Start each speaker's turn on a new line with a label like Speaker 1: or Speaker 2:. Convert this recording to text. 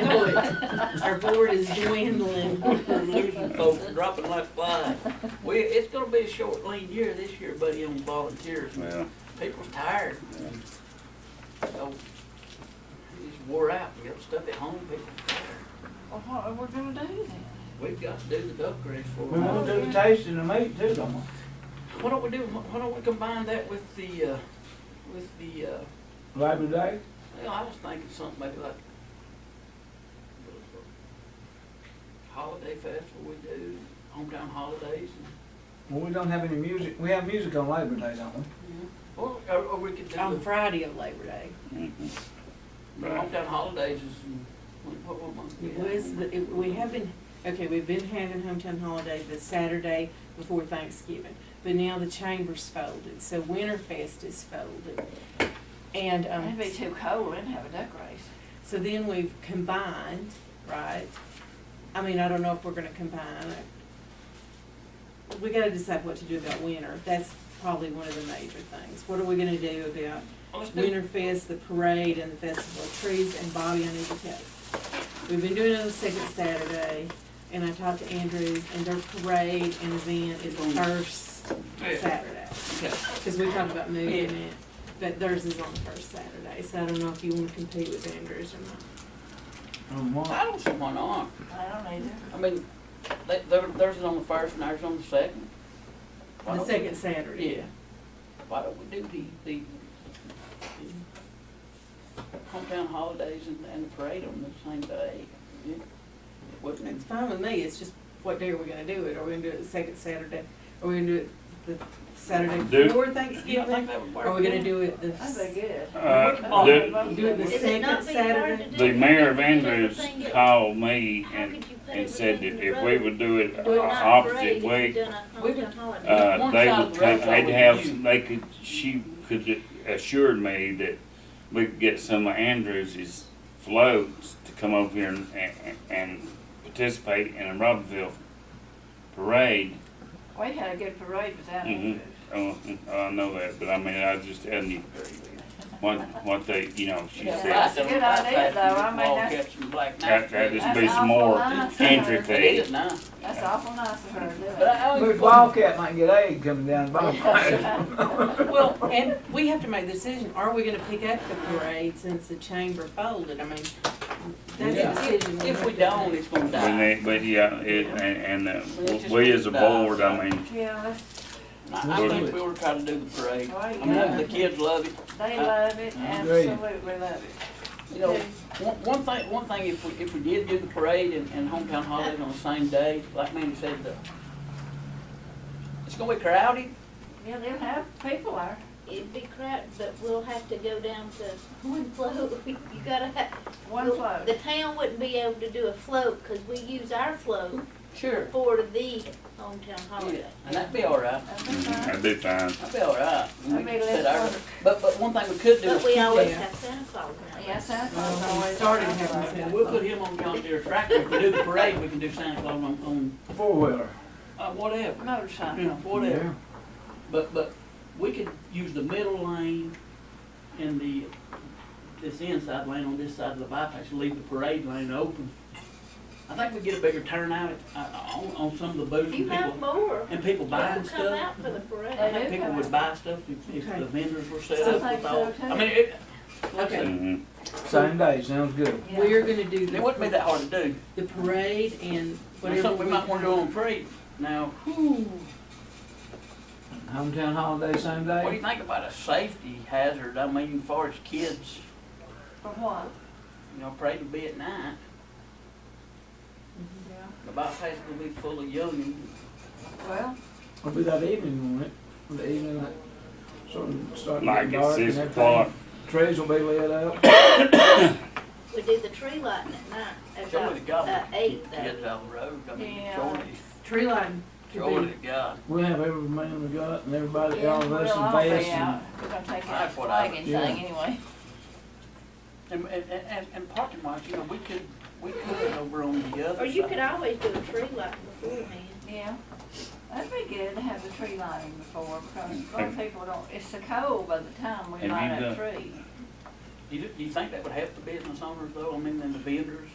Speaker 1: our board is dwindling, we're losing folks, dropping like flies. We, it's gonna be a short lean year this year, buddy, on volunteers,
Speaker 2: Yeah,
Speaker 1: people's tired.
Speaker 2: Yeah.
Speaker 1: So, it's wore out, we got stuff at home, people,
Speaker 3: Well, what are we gonna do then?
Speaker 1: we've got to do the duck race for
Speaker 4: We
Speaker 1: them.
Speaker 4: want to do the tasting of meat too, don't we?
Speaker 1: Why don't we do, why don't we combine that with the, uh, with the, uh,
Speaker 4: Labor Day?
Speaker 1: you know, I was thinking something maybe like holiday festival we do, hometown holidays and
Speaker 4: Well, we don't have any music, we have music on Labor Day, don't we?
Speaker 1: Or, or, or we could do,
Speaker 3: On
Speaker 1: the
Speaker 3: Friday of Labor Day.
Speaker 2: mhm. Right.
Speaker 1: hometown holidays is, in- what, what month?
Speaker 3: It was, the- it- we have been, okay, we've been having hometown holiday the Saturday before Thanksgiving, but now the chamber's folded, so Winterfest is folded. And, um,
Speaker 5: It'd be too cold, we'd have a duck race.
Speaker 3: so then we've combined, right? I mean, I don't know if we're gonna combine it. We gotta decide what to do about winter, that's probably one of the major things. What are we gonna do about
Speaker 1: Let's do,
Speaker 3: Winterfest, the parade, and the Festival of Trees, and Bobby, I need to tell you. We've been doing it on the second Saturday, and I talked to Andrew, and their parade and event is the first Saturday.
Speaker 1: okay,
Speaker 3: Cause we talked about moving it, but theirs is on the first Saturday, so I don't know if you wanna compete with Andrews or not.
Speaker 4: On
Speaker 1: I
Speaker 4: what?
Speaker 1: don't see why not,
Speaker 5: I don't either.
Speaker 1: I mean, they, there, there's it on the first and ours on the second. Why
Speaker 3: The
Speaker 1: don't we-
Speaker 3: second Saturday.
Speaker 1: Yeah, why don't we do the, the, the hometown holidays and, and the parade on the same day? Yeah. It
Speaker 3: It's
Speaker 1: Wouldn't,
Speaker 3: fine with me, it's just what day are we gonna do it? Are we gonna do it the second Saturday? Are we gonna do it the Saturday
Speaker 2: Do-
Speaker 3: before
Speaker 1: you don't think
Speaker 3: Thanksgiving?
Speaker 1: that would work?
Speaker 3: Are we gonna do it the?
Speaker 5: That'd be good.
Speaker 2: Uh, the,
Speaker 3: Do it the
Speaker 6: Is it not
Speaker 3: second
Speaker 6: being hard to
Speaker 3: Saturday.
Speaker 6: do?
Speaker 2: the mayor of Andrews
Speaker 6: Everything that-
Speaker 2: called me
Speaker 6: How could
Speaker 2: and,
Speaker 6: you put
Speaker 2: and said
Speaker 6: everything
Speaker 2: that
Speaker 6: in the
Speaker 2: if we
Speaker 6: road?
Speaker 2: would do it
Speaker 6: Do it
Speaker 2: uh,
Speaker 6: not
Speaker 2: opposite
Speaker 6: parade if
Speaker 2: way,
Speaker 6: you've done a
Speaker 1: We would-
Speaker 6: hometown holiday.
Speaker 2: uh,
Speaker 1: One
Speaker 2: they
Speaker 1: side
Speaker 2: would,
Speaker 1: of the road
Speaker 2: take- they'd
Speaker 1: would
Speaker 2: have,
Speaker 1: use.
Speaker 2: some- they could, she could assured me that we could get some of Andrews's floats to come over here and, and, and participate in a Robinville parade.
Speaker 5: We had a good parade without
Speaker 2: Mhm.
Speaker 5: it.
Speaker 2: Oh, I know that, but I mean, I just hadn't even, what, what they, you know, she
Speaker 5: Yeah.
Speaker 2: said.
Speaker 5: That's a good idea, though. I mean, that's-
Speaker 1: Catch some black
Speaker 2: That,
Speaker 1: knives.
Speaker 2: that just
Speaker 5: That's
Speaker 2: be some
Speaker 5: awful
Speaker 2: more
Speaker 5: nice.
Speaker 2: entry
Speaker 1: It is
Speaker 2: fee.
Speaker 1: now.
Speaker 5: That's awful nice of her to do
Speaker 1: But
Speaker 5: it.
Speaker 1: I
Speaker 4: Look,
Speaker 1: always.
Speaker 4: Wildcat might get egg coming down the bottom.
Speaker 3: Well, and we have to make the decision, are we gonna pick up the parade since the chamber folded? I mean, that's
Speaker 1: Yeah.
Speaker 3: a decision.
Speaker 1: If
Speaker 3: have
Speaker 1: we
Speaker 3: to
Speaker 1: don't,
Speaker 3: make.
Speaker 1: it's gonna
Speaker 2: But
Speaker 1: die.
Speaker 2: they- But yeah, it, and, and
Speaker 1: Well,
Speaker 2: uh,
Speaker 1: it's
Speaker 2: we
Speaker 1: just
Speaker 2: as a
Speaker 1: gonna die.
Speaker 2: board, I mean,
Speaker 5: Yeah, that's-
Speaker 1: I I think we ought to try to do the
Speaker 6: Oh,
Speaker 1: parade. I mean, the kids love it.
Speaker 5: they love it, absolutely love it.
Speaker 1: You know, one, one thing, one thing, if we, if we did do the parade and, and hometown holiday on the same day, like Manny said, the, it's gonna be crowded.
Speaker 5: Yeah, they'll have people there.
Speaker 6: It'd be crap, but we'll have to go down to one float. You gotta have.
Speaker 5: One float.
Speaker 6: The town wouldn't be able to do a float, cause we use our float
Speaker 1: Sure.
Speaker 6: for the hometown
Speaker 1: Yeah,
Speaker 6: holiday.
Speaker 1: and that'd be all right.
Speaker 5: That'd be fine.
Speaker 2: that'd be fine.
Speaker 1: That'd be all right. We
Speaker 5: That'd be
Speaker 1: could set
Speaker 5: less
Speaker 1: our-
Speaker 5: work.
Speaker 1: But, but one thing we could do is.
Speaker 6: But we always
Speaker 3: Yeah.
Speaker 6: have Santa Claus now.
Speaker 5: Yes, that's
Speaker 3: Well, we
Speaker 5: always.
Speaker 3: started having
Speaker 1: Yeah,
Speaker 3: Santa
Speaker 1: We'll put
Speaker 3: Claus.
Speaker 1: him on John Deere tractor. If we do the parade, we can do Santa Claus on, on,
Speaker 4: Four-wheeler.
Speaker 1: uh, whatever. You
Speaker 5: Motorcycle.
Speaker 1: know, whatever. But, but we could use the middle lane and the, this inside lane on this side of the bypass, leave the parade lane open. I think we get a bigger turnout, uh, on, on some of the booths
Speaker 6: You
Speaker 1: and
Speaker 6: have
Speaker 1: people,
Speaker 6: more.
Speaker 1: and people buying
Speaker 6: People come
Speaker 1: stuff.
Speaker 6: out for the
Speaker 1: I
Speaker 6: parade.
Speaker 1: think people would buy stuff if, if
Speaker 3: Okay.
Speaker 1: the vendors were set
Speaker 3: So-
Speaker 1: up with all, I mean, it, like I said,
Speaker 2: Mhm.
Speaker 4: Same day, sounds good.
Speaker 5: Yeah.
Speaker 3: We're gonna do
Speaker 1: it wouldn't be
Speaker 3: the,
Speaker 1: that hard to do.
Speaker 3: the parade and
Speaker 1: That's
Speaker 3: whatever.
Speaker 1: something we might wanna do on parade. Now, whew,
Speaker 4: Hometown holiday, same
Speaker 1: What do you
Speaker 4: day?
Speaker 1: think about a safety hazard? I mean, as far as kids,
Speaker 5: For what?
Speaker 1: you know, pray to be at night.
Speaker 5: Yeah.
Speaker 1: The bypass will be full of young.
Speaker 5: Well,
Speaker 4: It'll be that evening, won't it? The evening, like, sort of starting to
Speaker 2: Like at
Speaker 4: get dark and
Speaker 2: six
Speaker 4: everything.
Speaker 2: o'clock,
Speaker 4: Trees will be lit up.
Speaker 6: We do the tree lighting at night,
Speaker 1: Surely to
Speaker 6: about,
Speaker 1: God,
Speaker 6: uh, eight
Speaker 1: keep
Speaker 6: though.
Speaker 1: kids out of the road. I mean,
Speaker 5: Yeah.
Speaker 1: surely,
Speaker 3: Tree line. could be-
Speaker 1: surely to God.
Speaker 4: We'll have every man we got and everybody,
Speaker 5: yeah,
Speaker 4: all of
Speaker 5: we'll
Speaker 4: us in
Speaker 5: all
Speaker 4: vests
Speaker 5: be
Speaker 4: and
Speaker 5: out. We're gonna take out
Speaker 1: That's
Speaker 5: the
Speaker 1: what I
Speaker 5: flag and
Speaker 4: would
Speaker 5: thing
Speaker 4: do.
Speaker 5: anyway.
Speaker 1: And, and, and- and, and parking wise, you know, we could, we could over on the other side.
Speaker 6: Or you could always do a tree lighting beforehand.
Speaker 5: Yeah. That'd be good to have the tree lighting before, because a lot
Speaker 2: Have-
Speaker 5: of people don't, it's so cold by the time we
Speaker 2: Have you
Speaker 5: light up
Speaker 2: done-
Speaker 5: trees.
Speaker 1: Do you, do you think that would help the business owners though? I mean, and the vendors?